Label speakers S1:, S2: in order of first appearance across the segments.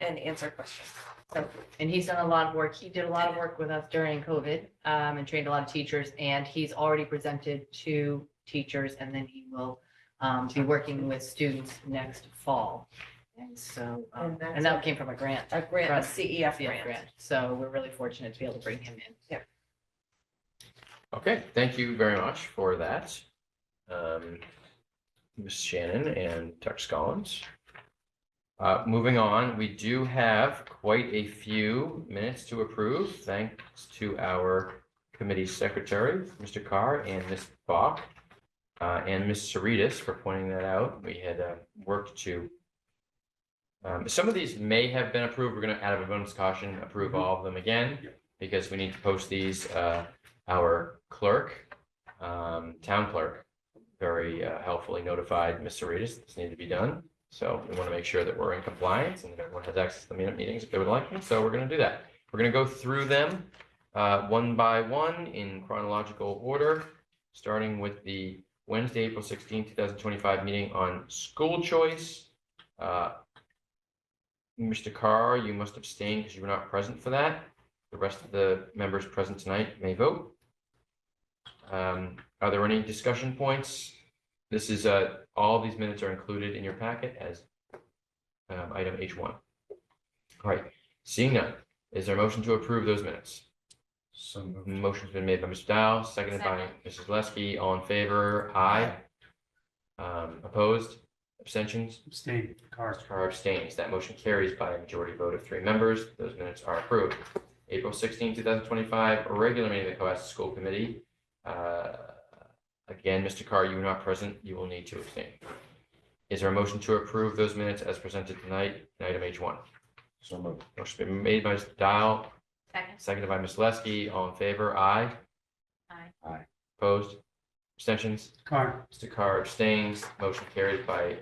S1: and answer questions. So, and he's done a lot of work. He did a lot of work with us during COVID um, and trained a lot of teachers. And he's already presented to teachers and then he will um, be working with students next fall. And so, um,
S2: And that's-
S1: and that came from a grant,
S2: A grant,
S1: From
S2: a CEF
S1: field
S2: grant.
S1: grant. So we're really fortunate to be able to bring him in.
S3: Okay, thank you very much for that. Um, Ms. Shannon and Dr. Scollins. Uh, moving on, we do have quite a few minutes to approve, thanks to our committee secretary, Mr. Carr and Ms. Bach. Uh, and Ms. Saritas for pointing that out. We had, uh, worked to. Um, some of these may have been approved. We're gonna, out of abundance of caution, approve all of them again. Because we need to post these, uh, our clerk, um, town clerk, very uh, helpfully notified Ms. Saritas this needed to be done. So we want to make sure that we're in compliance and that everyone has access to the minute meetings if they would like. So we're going to do that. We're going to go through them uh, one by one in chronological order, starting with the Wednesday, April 16, 2025 meeting on school choice. Uh, Mr. Carr, you must abstain because you were not present for that. The rest of the members present tonight may vote. Um, Are there any discussion points? This is, uh, all these minutes are included in your packet as um, item H1. All right, seeing none, is there a motion to approve those minutes?
S4: So moved.
S3: Motion's been made by Mr. Dow, seconded by Mrs. Leskey. All in favor? Aye. Um, Opposed? Abstentions?
S4: Abstain. Carr.
S3: Carr abstains. That motion carries by a majority vote of three members. Those minutes are approved. April 16, 2025, a regular meeting of the Cohasset School Committee. Uh, Again, Mr. Carr, you were not present. You will need to abstain. Is there a motion to approve those minutes as presented tonight, in item H1?
S4: So moved.
S3: Motion's been made by Mr. Dial,
S1: Second.
S3: Seconded by Ms. Leskey. All in favor? Aye.
S1: Aye.
S4: Aye.
S3: Opposed? Abstentions?
S4: Carr.
S3: Mr. Carr abstains. Motion carries by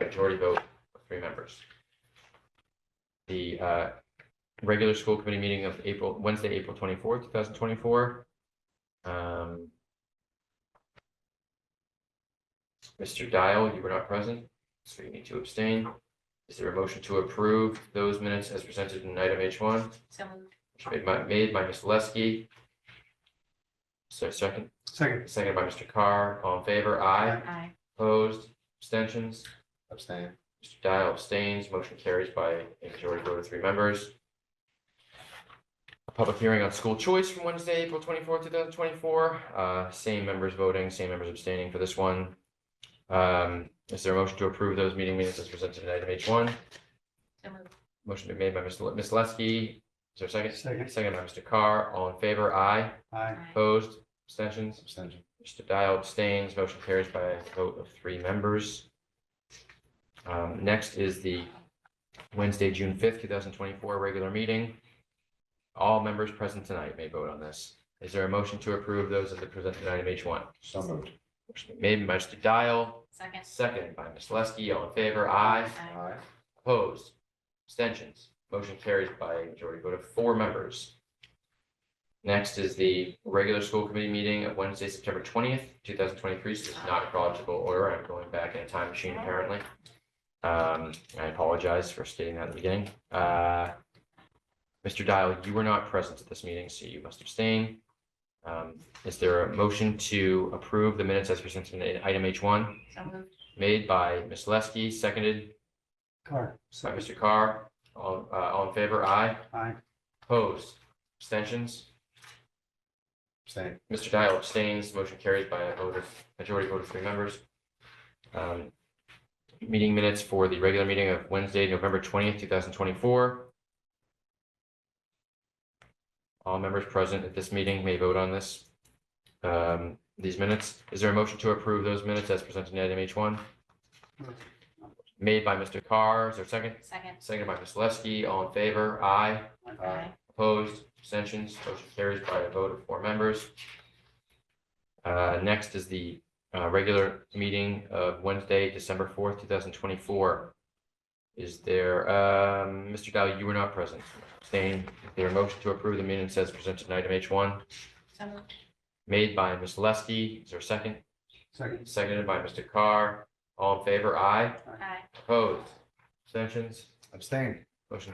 S3: majority vote of three members. The uh, regular school committee meeting of April, Wednesday, April twenty-fourth, two thousand twenty-four. Um, Mr. Dial, you were not present, so you need to abstain. Is there a motion to approve those minutes as presented in item H one?
S1: So moved.
S3: Motion Made by, made by Mr. Leskey. So second,
S4: Second.
S3: second by Mr. Carr, all in favor, aye,
S1: Aye.
S3: opposed, abstentions,
S4: Abstain.
S3: Mr. Dial abstains, motion carries by a majority vote of three members. A public hearing on school choice from Wednesday, April twenty-fourth, two thousand twenty-four, uh, same members voting, same members abstaining for this one. Um, is there a motion to approve those meeting minutes as presented in item H one?
S1: So moved.
S3: Motion been made by Mr. Le- Ms. Leskey, is there a second?
S4: Second.
S3: Second by Mr. Carr, all in favor, aye.
S4: Aye.
S3: Opposed, abstentions,
S4: Abstention.
S3: Mr. Dial abstains, motion carries by a vote of three members. Um, next is the Wednesday, June fifth, two thousand twenty-four, regular meeting. All members present tonight may vote on this. Is there a motion to approve those as the presented item H one?
S4: So moved.
S3: Motion Made by Mr. Dial,
S1: Second.
S3: seconded by Ms. Leskey, all in favor, aye.
S4: Aye.
S3: Opposed? Abstentions? Motion carries by a majority vote of four members. Next is the regular school committee meeting of Wednesday, September twentieth, two thousand twenty-three. This is not chronological order. I'm going back in a time machine apparently. Um, I apologize for stating that at the beginning. Uh, Mr. Dial, you were not present at this meeting, so you must abstain. Um, is there a motion to approve the minutes as presented in item H one,
S1: So moved.
S3: made by Ms. Leskey, seconded
S4: Carr.
S3: by Mr. Carr, all, uh, all in favor, aye.
S4: Aye.
S3: Opposed, abstentions?
S4: Abstain.
S3: Mr. Dial abstains, motion carries by a vote of, majority vote of three members. Um, Meeting minutes for the regular meeting of Wednesday, November twentieth, two thousand twenty-four. All members present at this meeting may vote on this, um, these minutes. Is there a motion to approve those minutes as presented in item H one? Made by Mr. Carr, is there a second?
S1: Second.
S3: Seconded by Ms. Leskey, all in favor, aye.
S4: Aye.
S3: Opposed, abstentions, motion carries by a vote of four members. Uh, Next is the uh, regular meeting of Wednesday, December 4th, 2024. Is there, um, Mr. Dow, you were not present, abstain. Is there a motion to approve the minutes as presented in item H1?
S1: So moved.
S3: Made by Ms. Leskey, is there a second?
S4: Second.
S3: Seconded by Mr. Carr. All in favor, aye.
S1: Aye.
S3: Opposed, abstentions,
S4: Abstain.
S3: motion